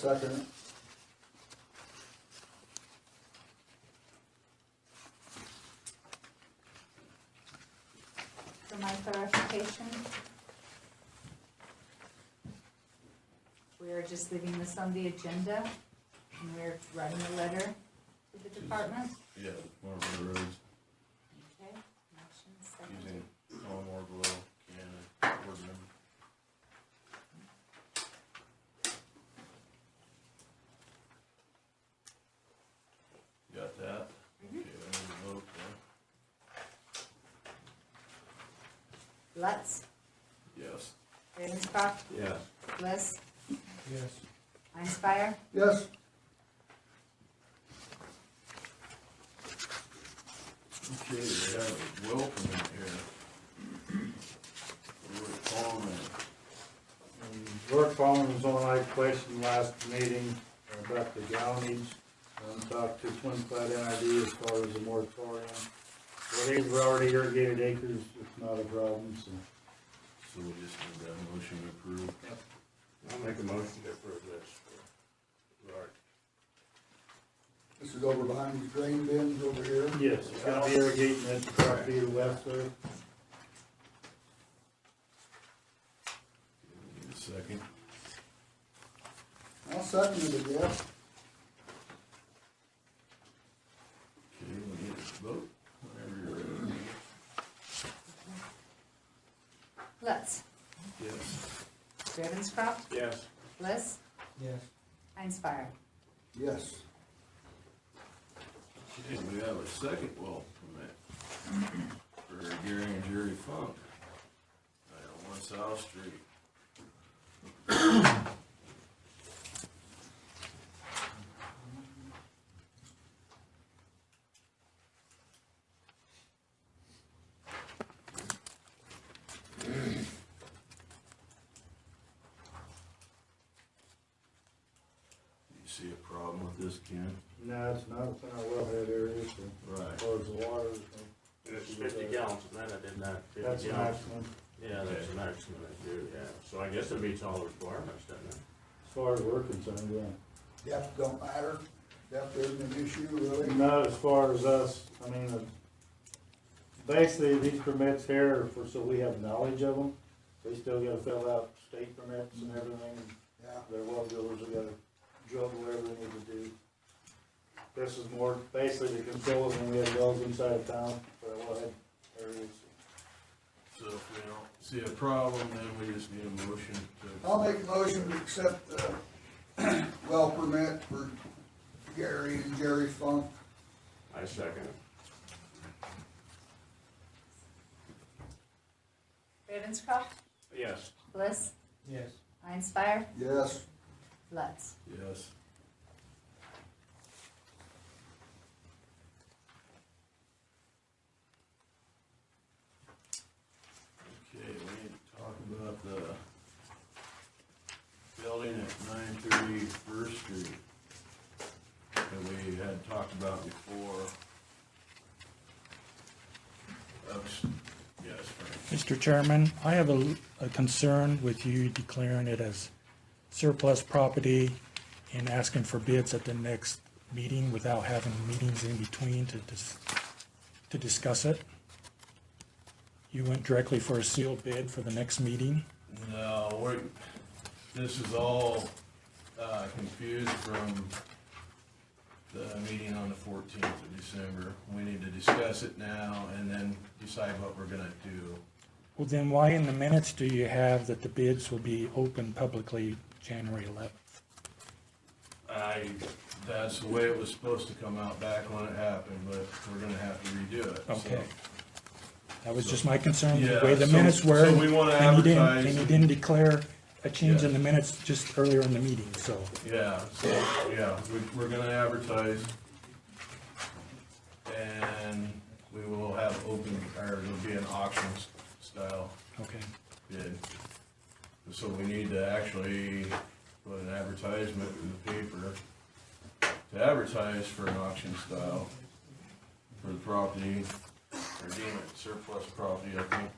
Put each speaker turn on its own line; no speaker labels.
second it.
for my clarification. We are just leaving this on the agenda, and we're writing a letter to the department.
Yeah, Marlboro Roads,
Okay, motion seconded.
using all Marlboro, Canada, board member. Got that?
Mm-hmm.
Okay, I need to vote, yeah?
Lutz,
Yes.
Ravenscroft,
Yeah.
Bliss,
Yes.
Einspire,
Yes,
Okay, we have a welcome in here. We're calling,
George Fallon Mm, was on, I questioned last meeting uh, about the gallonage. Um, talked to Twin Flat NID as far as the moratorium. Well, these were already irrigated acres, it's not a problem, so.
so we just need that motion to approve.
I'll make a motion to approve this. Right.
This is over behind these grain bins over here.
Yes, it's gonna be irrigating that property to the west there.
Need a second?
I'll second it, I guess.
Okay, we need to vote whenever you're ready.
Lutz,
Yes.
Ravenscroft,
Yes.
Bliss,
Yes.
Einspire.
Yes.
Okay, we have a second well permit for Gary and Jerry Funk. Right on One South Street. You see a problem with this, Ken?
No, it's not within our wellhead area, so, as
Right.
far as the water. so
And it's fifty gallons, and that I did not,
That's
fifty
the
gallons.
maximum,
Yeah, that's the maximum I do, yeah. So I guess it meets all the requirements, doesn't it?
as far as we're concerned, yeah.
Depth don't matter. Depth isn't an issue, really.
Not as far as us, I mean, uh, basically, these permits here are for, so we have knowledge of them. They still gotta fill out state permits and everything,
Yeah.
their well drillers have gotta drill whatever they need to do. This is more basically to control us when we have wells inside of town for our wellhead areas.
So if we don't see a problem, then we just need a motion to.
I'll make a motion to accept the well permit for Gary and Jerry Funk.
I second it.
Ravenscroft,
Yes.
Bliss,
Yes.
Einspire,
Yes.
Lutz.
Yes. Okay, we need to talk about the building at nine thirty First Street that we had talked about before. Oops, yes, Frank.
Mr. Chairman, I have a, a concern with you declaring it as surplus property and asking for bids at the next meeting without having meetings in between to dis, to discuss it. You went directly for a sealed bid for the next meeting.
No, we're, this is all, uh, confused from the meeting on the fourteenth of December. We need to discuss it now and then decide what we're gonna do.
Well, then why in the minutes do you have that the bids will be open publicly January 11th?
I, that's the way it was supposed to come out back when it happened, but we're gonna have to redo it, so.
Okay. That was just my concern, the
Yeah,
way the
so-
minutes were.
so we wanna
and you didn't-
advertise
And you
and-
didn't declare a change in
Yeah.
the minutes just earlier in the meeting, so.
Yeah, so, yeah, we, we're gonna advertise. And we will have open, or it'll be an auction s- style
Okay.
bid. So we need to actually put an advertisement in the paper to advertise for an auction style for the property, or deem it surplus property, I think